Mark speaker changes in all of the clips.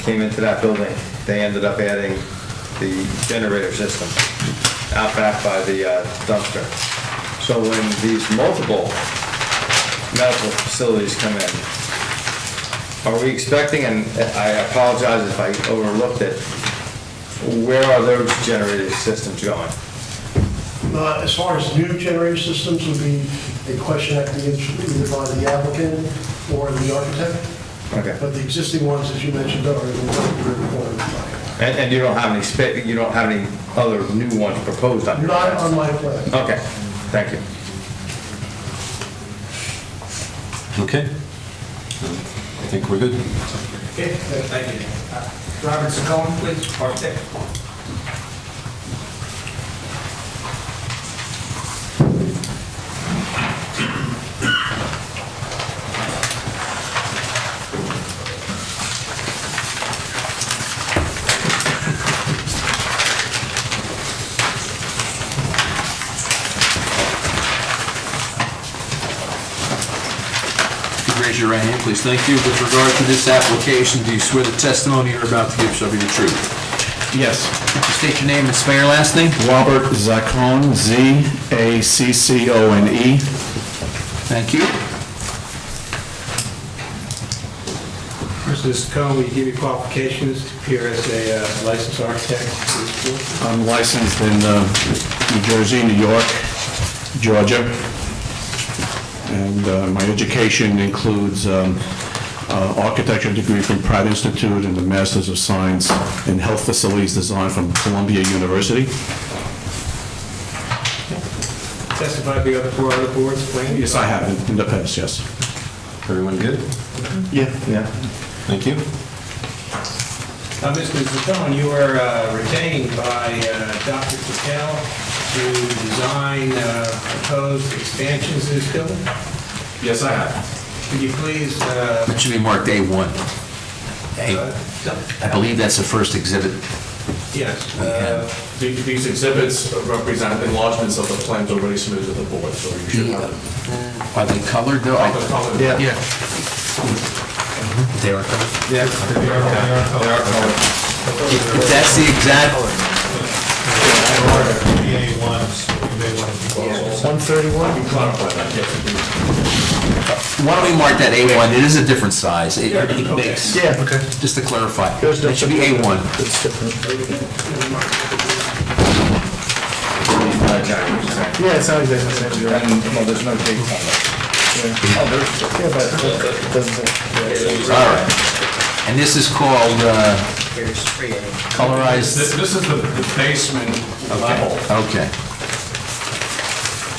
Speaker 1: came into that building, they ended up adding the generator system out back by the uh, dumpster. So when these multiple medical facilities come in, are we expecting, and I apologize if I overlooked it, where are those generator systems going?
Speaker 2: Uh, As far as new generator systems would be a question that can be answered either by the applicant or the architect.
Speaker 1: Okay.
Speaker 2: But the existing ones, as you mentioned, are in the required.
Speaker 1: And, and you don't have any spa, you don't have any other new ones proposed on your
Speaker 2: Not on
Speaker 1: plans?
Speaker 2: my plan.
Speaker 1: Okay, thank you.
Speaker 3: Okay. I think we're good.
Speaker 4: Okay, thank you. Uh, Robert Saccone, please, architect.
Speaker 5: If you Raise your right hand, please. Thank you. With regard to this application, do you swear the testimony you're about to give shall be the truth?
Speaker 6: Yes,
Speaker 5: Could you State your name and spell your last name.
Speaker 6: Robert Zaccone, Z-A-C-C-O-N-E.
Speaker 5: Thank you.
Speaker 4: Mr. Saccone, will you give your qualifications to appear as a uh, licensed architect? please?
Speaker 6: I'm licensed in uh, New Jersey, New York, Georgia, and uh, my education includes um, uh, architecture degree from Pratt Institute and the Masters of Science in Health Facilities Design from Columbia University.
Speaker 4: Testify before other four other boards, please.
Speaker 6: Yes, I have in- in the past, yes.
Speaker 3: Everyone good?
Speaker 6: Yeah.
Speaker 1: Yeah.
Speaker 3: Thank you.
Speaker 4: Uh, Mr. Saccone, you were uh, retained by uh, Dr. Patel to design uh, proposed expansions to this building.
Speaker 6: Yes, I have.
Speaker 4: Could you please, uh,
Speaker 5: That should be marked A1.
Speaker 4: uh,
Speaker 5: A-
Speaker 4: t-
Speaker 5: I believe that's the first exhibit.
Speaker 4: yes, uh,
Speaker 7: These exhibits represent enlargements of the plans already submitted to the board, so you should have
Speaker 5: Are they colored though?
Speaker 7: the
Speaker 5: I-
Speaker 7: problem.
Speaker 5: Yeah. They are colored.
Speaker 1: Yeah, they are, they are colored.
Speaker 5: If that's the exact, why don't we mark that A1? It is a different size. It it makes,
Speaker 6: Yeah, okay.
Speaker 5: just to clarify. It should be A1.
Speaker 1: Uh, Jack, you're saying.
Speaker 6: Yeah, it sounds exactly
Speaker 1: And, well, there's no dates on it. Oh, there's,
Speaker 5: All right. And this is called uh, colorized
Speaker 7: This this is the the basement level
Speaker 5: Okay,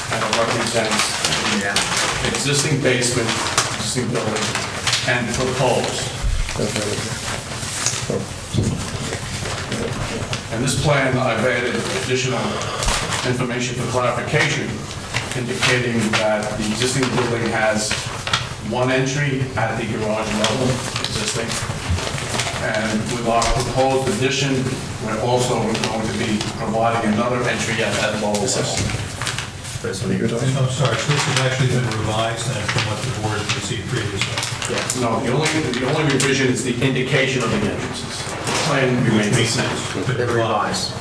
Speaker 7: and it represents the existing basement, existing building, and proposed. And this plan, I've added additional information for clarification indicating that the existing building has one entry at the garage level, existing. And with our proposed addition, we're also going to be providing another entry at that lower level.
Speaker 8: I'm sorry, so this has actually been revised then from what the board received previously.
Speaker 7: No, the only, the only revision is the indication of the entrances. The Plan remains the same.
Speaker 8: But revised.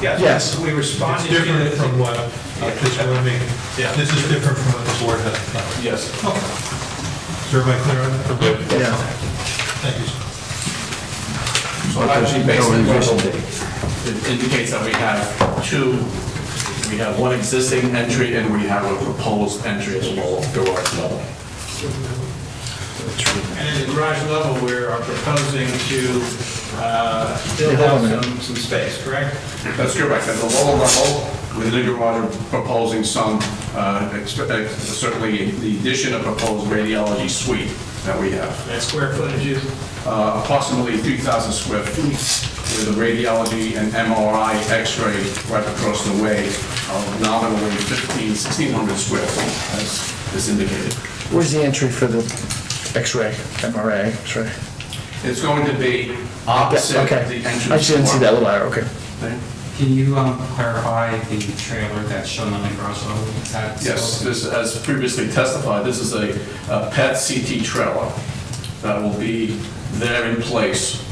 Speaker 4: yes, we
Speaker 8: It's
Speaker 4: responded to
Speaker 8: different
Speaker 4: the
Speaker 8: from what uh, this rooming, this is different from what the board had. done.
Speaker 7: Yes.
Speaker 8: Is everybody clear on that?
Speaker 1: Yeah.
Speaker 8: Thank you, sir.
Speaker 7: So actually, basically, it indicates that we have two, we have one existing entry and we have a proposed entry as well, garage level.
Speaker 4: And in the garage level, we are proposing to uh, build out some, some space, correct?
Speaker 7: That's correct, at the lower level, within the garage, we're proposing some, uh, extra- uh, certainly the addition of proposed radiology suite that we have.
Speaker 4: That square footage is
Speaker 7: uh, approximately 3,000 square feet with a radiology and MRI x-ray right across the way of nominally 15, 1,600 square feet, as is indicated.
Speaker 9: Where's the entry for the X-ray, MRI, X-ray?
Speaker 7: It's going to be opposite the
Speaker 9: Okay.
Speaker 7: entrance.
Speaker 9: I just didn't see
Speaker 7: door.
Speaker 9: that little arrow, okay.
Speaker 7: Okay.
Speaker 10: Can you um, clarify the trailer that's shown on the garage level? Is that still-
Speaker 7: Yes, this, as previously testified, this is a a PET CT trailer that will be there in place